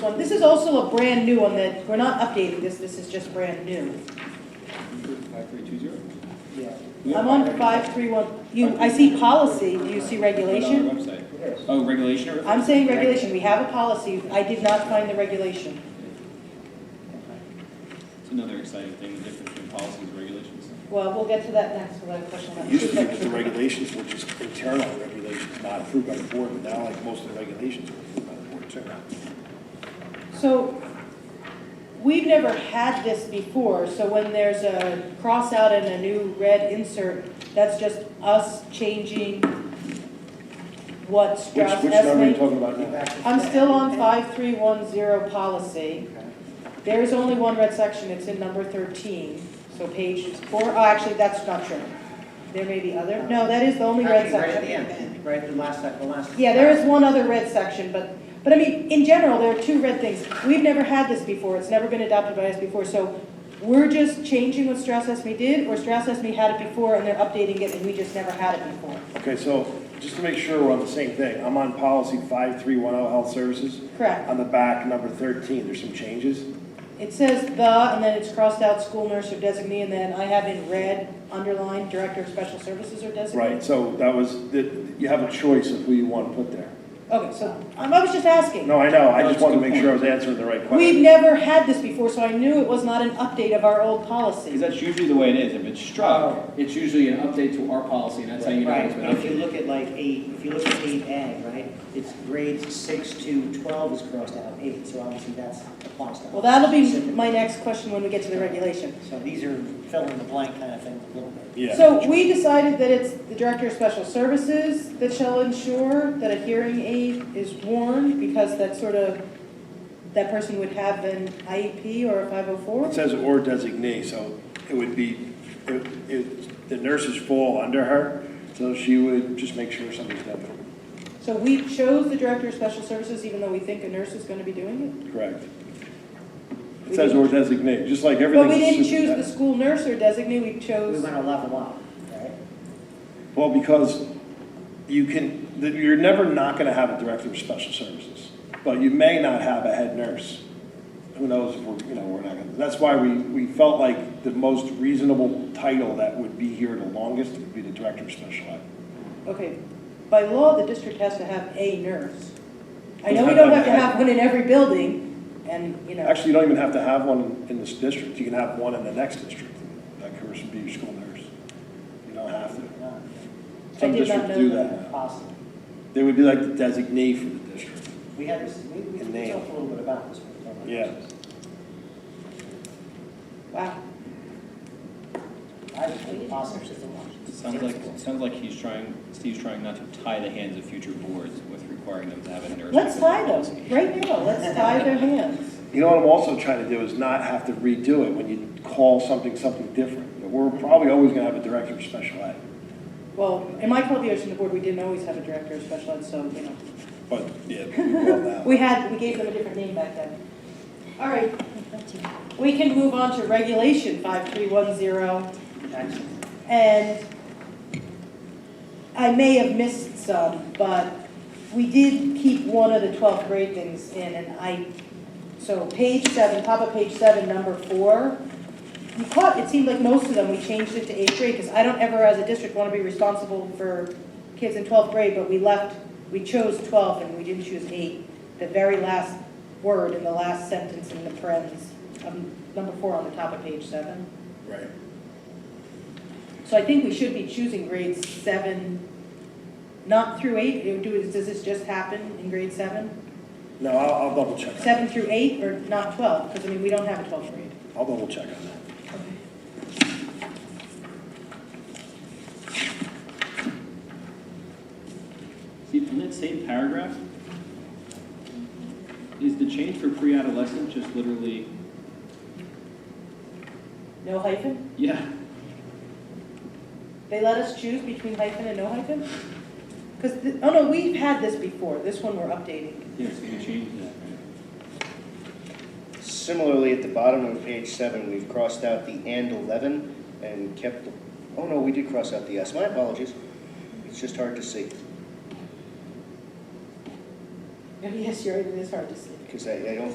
Well, This is also a brand new one that, we're not updating this, this is just brand new. Five, three, two, zero. Yeah. I'm on five three one, you, I see policy, do you see regulation? On our website. Yes. Oh, regulation or? I'm saying regulation, we have a policy, I did not find the regulation. It's another exciting thing, the difference between policies and regulations. Well, we'll get to that next, we'll have a question on that. Used to be with the regulations, which is internal regulations, not approved by the board, but now like most of the regulations are approved by the board too. So, we've never had this before, so when there's a cross out and a new red insert, that's just us changing what Which, Strauss which number are you Esme. talking about now? I'm still on five three one zero policy. There is only one red section, it's in number thirteen, so page four, oh, actually, that's not true. There may be other, no, that is the only red Actually, section. right at the end, right at the last, sec- the last. Yeah, there is one other red section, but, but I mean, in general, there are two red things. We've never had this before, it's never been adopted by us before, so we're just changing what Strauss Esme did, or Strauss Esme had it before and they're updating it and we just never had it before. Okay, so just to make sure we're on the same thing, I'm on policy 5310 oh, health services. Correct. On the back, number 13, there's some changes. It says the, and then it's crossed out, school nurse or designee, and then I have in red, underlined, director of special services or designee. Right, so that was, that- you have a choice of who you want to put there. Okay, so, um, I was just asking. No, I know, No, I just it's a wanted to good make sure I was answering the right question. We've never had this before, so I knew it was not an update of our old policy. Because that's usually the way it is. If it's Oh. struck, it's usually an update to our policy, and that's how you know it's Right, been but if you updated. look at like eight, if you look at eight A, right, it's grades six to twelve is crossed out, eight, so obviously that's applies to. Well, that'll be specific. my next question when we get to the regulation. So these are fill in the blank kind of things a little bit. Yeah. So we decided that it's the Director of Special Services that shall ensure that a hearing aid is worn because that sort of, that person would have an IEP or a 504? It says or designate, so it would be, it- it- the nurses fall under her, so she would just make sure something's done. So we chose the Director of Special Services even though we think a nurse is going to be doing Correct. We It says or designate, just like it? But everything. we didn't that's- choose the school nurse or designate, we We chose, want to level up, right? Well, because you can, that you're never not going to have a director of special services, but you may not have a head nurse. Who knows if we're, you know, we're not going to, that's why we, we felt like the most reasonable title that would be here the longest would be the director of special ed. okay, by law, the district has to have a nurse. I We know we have don't to have to have- have one in every building and, you know. Actually, you don't even have to have one in this district, you can have one in the next district, that person be your school nurse. You don't have to. No, Some did not districts know do that. that now. Possible. They would be like the designee for the district. We had this, we, we Name. talked a little bit about this. when we talked about Yeah. this. Wow. I just think possible. Sounds like, sounds like he's trying, Steve's trying not to tie the hands of future boards with requiring them to have a nurse. Let's because of tie policy. them, right now, let's tie their hands. You know what I'm also trying to do is not have to redo it when you call something something different. We're probably always gonna have a director of special ed, Well, in my 12 years on the board, we didn't always have a director of special ed, so, you know, but yeah, we will now. we had, we gave them a different name back then. All right, we can move on to regulation 5310, and I may have missed some, but we did keep one of the 12th grade things in, and I, so page seven, top of page seven, number four, you caught, it seemed like most of them, we changed it to eighth grade, because I don't ever, as a district, want to be responsible for kids in 12th grade, but we left, we chose 12 and we didn't choose eight. The very last word in the last sentence in the parentheses, um, number four on the top of page seven. Right. So I think we should be choosing grades seven, not through eight, Do- do- does this just happen in grade seven? No, I'll, I'll double check. Seven through eight, or not 12, because I mean, we don't have a 12th grade. I'll double check on that. See, in that same paragraph, is the change for pre-adolescent just literally, No hyphen? yeah, They let us choose between hyphen and no hyphen? Because, oh no, we've had this before, this one we're updating. yes, we changed that, right? Similarly, at the bottom of page seven, we've crossed out the and 11 and kept, the oh no, we did cross out the S. My apologies. It's just hard to see Oh, Yes, you're right, it is hard to see. because I I don't